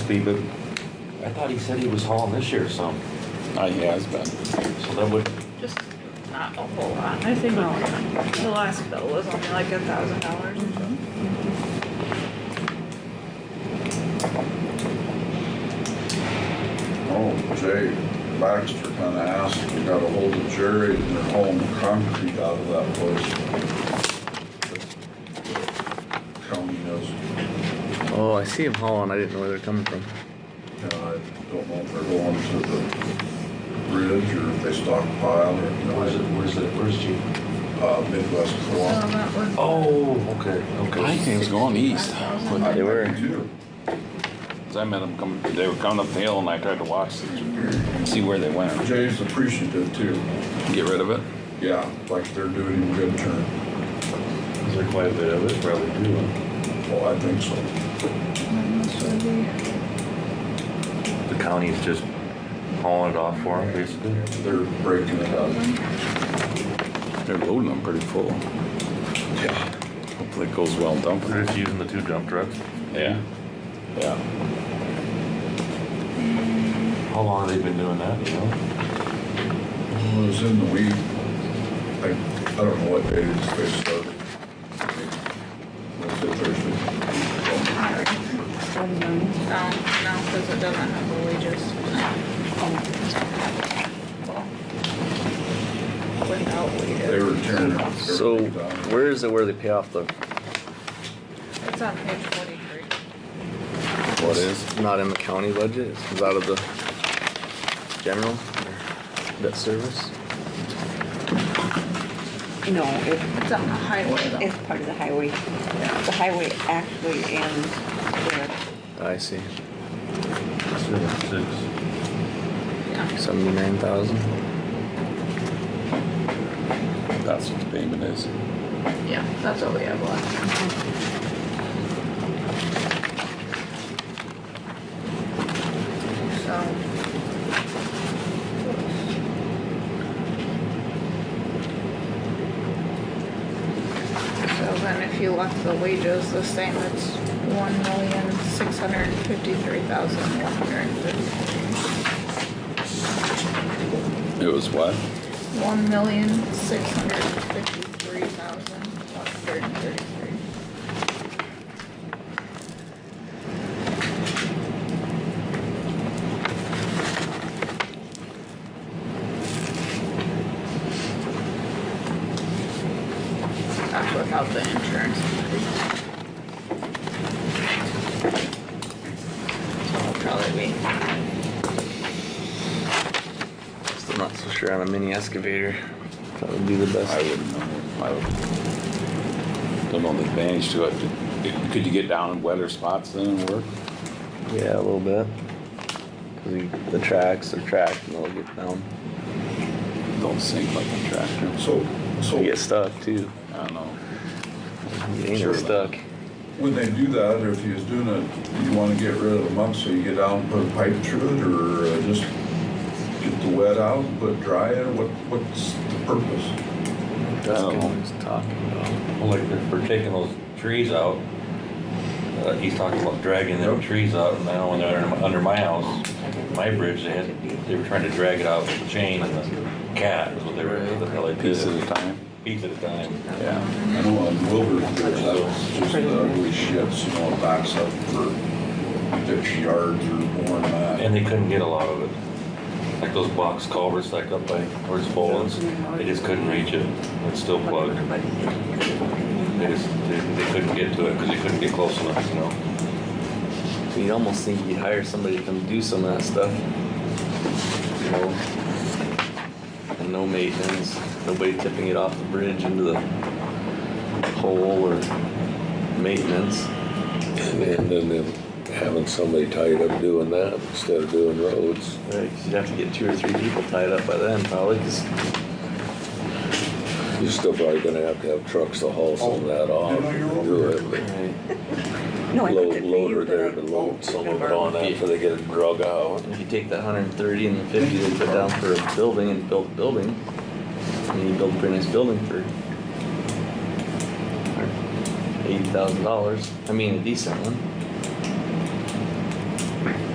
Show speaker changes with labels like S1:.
S1: be, but I thought he said he was hauling this year some,
S2: Uh, he has been.
S1: so that would,
S3: Just not a whole lot. I think the last bill was only like a thousand dollars.
S4: Oh, Jay Baxter kinda asked, we got a hold of Jerry and they're hauling concrete out of that place. County knows,
S5: Oh, I see them hauling. I didn't know where they're coming from.
S4: you know, I don't know if they're going to the bridge or if they stockpile or, you know,
S1: where's it, where's it, where's G?
S4: uh, Midwest
S3: So
S4: co-op.
S3: that was.
S1: Oh, okay,
S2: I
S1: okay.
S2: think it was going east.
S4: I-
S2: Cause
S5: Oh, They were.
S4: I do.
S2: I met them coming, they were coming up the hill and I tried to watch, to see where they went.
S4: Jay's appreciative too,
S2: Get rid of it?
S4: yeah, like they're doing him a good turn,
S1: Is there quite a bit of it? Probably do.
S4: well, I think so.
S1: The county's just hauling it off for him, basically.
S4: They're breaking it up.
S2: They're loading them pretty full.
S4: Yeah.
S2: Hopefully it goes well dumping.
S1: They're just using the two dump trucks.
S2: Yeah? Yeah.
S1: How long have they been doing that, you know?
S4: It was in the week. I, I don't know what day it is they started. Wednesday, Thursday.
S3: No, no, cause it doesn't have the wages. Oh. Without
S4: They
S3: wages.
S4: were tearing it.
S5: So where is it where they pay off the?
S3: It's on page forty-three.
S2: What is?
S5: Not in the county budget. It's out of the general debt service.
S6: No, it,
S3: It's on the highway though.
S6: it's part of the highway. The highway actually ends there.
S5: I see.
S1: Six, six.
S3: Yeah.
S5: Seventy-nine thousand.
S2: That's what the payment is.
S3: Yeah, that's what we have left. So. So then if you left the wages the same, it's one million, six hundred and fifty-three thousand, one hundred and fifty.
S2: It was what?
S3: One million, six hundred and fifty-three thousand, one hundred and thirty-three. That's without the insurance. increase. So it'll probably be
S5: Still not so sure on a mini excavator. That would be the
S2: I
S5: best.
S2: wouldn't know. I would. Don't know the advantage to it. Could you get down in wetter spots then and work?
S5: Yeah, a little bit. 'Cause you- the tracks are tracked and they'll get down.
S2: Don't sink like a tractor.
S4: So,
S5: You get
S4: so
S5: stuck too.
S2: I don't know.
S5: You ain't
S2: Sure.
S5: stuck.
S4: when they do that, if he's doing it, you wanna get rid of the muck, so you get out and put a pipe through it, or uh, just get the wet out, put dry in, what, what's the purpose?
S5: That's
S2: Oh.
S5: what he's talking about.
S1: Well, like they're, for taking those trees out. Uh, he's talking about dragging them trees out, and now when they're under, under my house, my bridge, they had, they were trying to drag it out with a chain and a cat, is what they were, the hell they did.
S2: Piece at a time.
S1: Piece at a time.
S2: Yeah.
S4: I know on Wilbur, there's that was just uh, the ugly shits, you know, it backs up for fifty yards or more than that.
S1: And they couldn't get a lot of it. Like those box culverts like up by where's Boland's, they just couldn't reach it. It's still plugged. They just, they, they couldn't get to it because they couldn't get close enough, you know?
S5: You'd almost think you'd hire somebody to come do some of that stuff. You know? And no maintenance, nobody tipping it off the bridge into the hole or maintenance.
S7: And then them having somebody tied up doing that instead of doing roads.
S5: Right, 'cause you'd have to get two or three people tied up by then probably, 'cause
S7: You're still probably gonna have to have trucks to haul some of that
S2: uh,
S5: Oh.
S4: Um,
S7: off. and do it, but
S6: No, I looked
S7: Load,
S6: at
S7: loader
S6: these, but
S7: there
S6: I-
S7: to load some of it on after they get it drug out.
S5: if you take that hundred and thirty and the fifty they put down for a building and build a building, and you build a pretty nice building for eighty thousand dollars, I mean a decent one.